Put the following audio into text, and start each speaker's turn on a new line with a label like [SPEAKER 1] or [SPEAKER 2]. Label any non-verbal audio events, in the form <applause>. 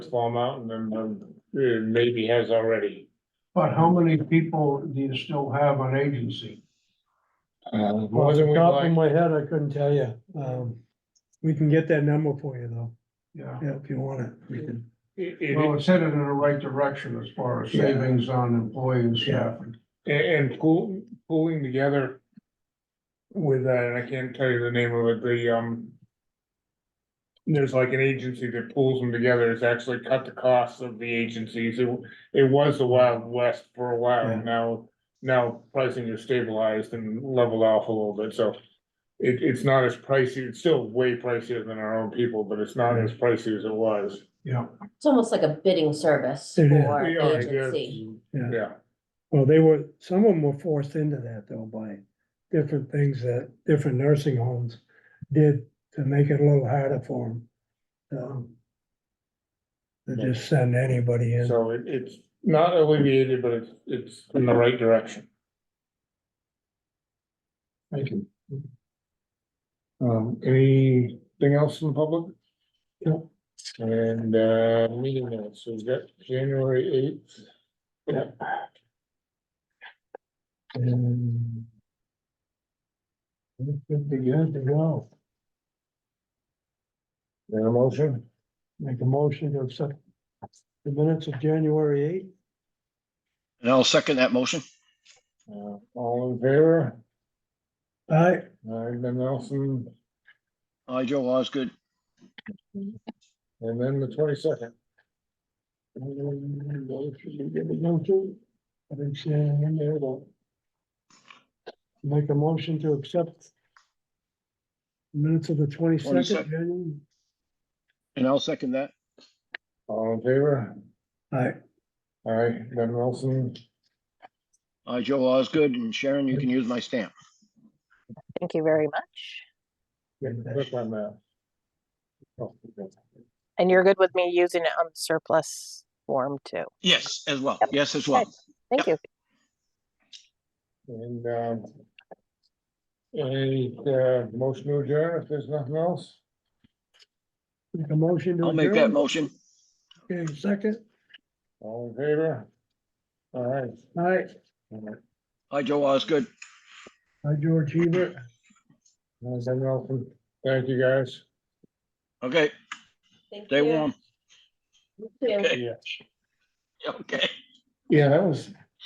[SPEAKER 1] Swan Mountain and um, uh, maybe has already.
[SPEAKER 2] But how many people do you still have on agency?
[SPEAKER 1] Uh, more
[SPEAKER 3] Off
[SPEAKER 1] than
[SPEAKER 3] the
[SPEAKER 1] we
[SPEAKER 3] top of
[SPEAKER 1] like.
[SPEAKER 3] my head, I couldn't tell you. Um, we can get that number for you though,
[SPEAKER 2] Yeah,
[SPEAKER 3] yeah, if you want it. we can.
[SPEAKER 1] It-
[SPEAKER 2] well,
[SPEAKER 1] it-
[SPEAKER 2] it's headed in the right direction as far as
[SPEAKER 3] Yeah.
[SPEAKER 2] savings on employee and staffing.
[SPEAKER 1] And, and pool, pooling together with, uh, and I can't tell you the name of it, the, um, there's like an agency that pulls them together. It's actually cut the costs of the agencies. It, it was the Wild West for a while.
[SPEAKER 3] Yeah.
[SPEAKER 1] Now, now pricing is stabilized and leveled off a little bit, so it, it's not as pricey. It's still way pricier than our own people, but it's not as pricey as it was.
[SPEAKER 2] Yeah,
[SPEAKER 4] It's almost like a bidding service
[SPEAKER 3] It is.
[SPEAKER 4] for
[SPEAKER 1] We are,
[SPEAKER 4] agency.
[SPEAKER 1] yeah,
[SPEAKER 3] Yeah.
[SPEAKER 1] Yeah.
[SPEAKER 3] Well, they were, some of them were forced into that though by different things that different nursing homes did to make it a little harder for them. Um, To just send anybody in.
[SPEAKER 1] So it, it's not alleviated, but it's, it's in the right direction.
[SPEAKER 2] thank you.
[SPEAKER 1] Um, anything else in the public? No. And, uh, meeting minutes, so we've got January eighth. Yeah. And. We should be good to go. Got a motion?
[SPEAKER 3] Make a motion to accept the minutes of January eighth.
[SPEAKER 5] And I'll second that motion.
[SPEAKER 1] Uh, all in favor?
[SPEAKER 3] I,
[SPEAKER 1] All right, then Nelson,
[SPEAKER 5] Aye, Joe Osgood.
[SPEAKER 1] and then the twenty-second.
[SPEAKER 3] I didn't see anything in there though. Make a motion to accept minutes of the twenty-second,
[SPEAKER 5] 22nd.
[SPEAKER 3] January.
[SPEAKER 5] And I'll second that.
[SPEAKER 1] All in favor?
[SPEAKER 3] I,
[SPEAKER 1] All right, Ben Wilson,
[SPEAKER 5] Aye, Joe Osgood. And Sharon, you can use my stamp.
[SPEAKER 6] Thank you very much.
[SPEAKER 1] getting quick on that. Oh, okay.
[SPEAKER 6] And you're good with me using it on the surplus form too.
[SPEAKER 5] Yes, as well. Yes, as well.
[SPEAKER 6] Thank you.
[SPEAKER 1] And, um, any, uh, motion to adjourn if there's nothing else?
[SPEAKER 3] make a motion to.
[SPEAKER 5] I'll make that
[SPEAKER 3] adjourn.
[SPEAKER 5] motion.
[SPEAKER 3] Okay, second,
[SPEAKER 1] All in favor? All right.
[SPEAKER 3] I,
[SPEAKER 1] All right.
[SPEAKER 5] Aye, Joe Osgood.
[SPEAKER 3] I, George Hebert,
[SPEAKER 1] And Ben Wilson, thank you guys.
[SPEAKER 5] Okay,
[SPEAKER 4] Thank
[SPEAKER 5] stay
[SPEAKER 4] you.
[SPEAKER 5] warm. <laughs>
[SPEAKER 4] You too.
[SPEAKER 5] Okay.
[SPEAKER 1] Yeah.
[SPEAKER 5] Okay.
[SPEAKER 1] Yeah, that was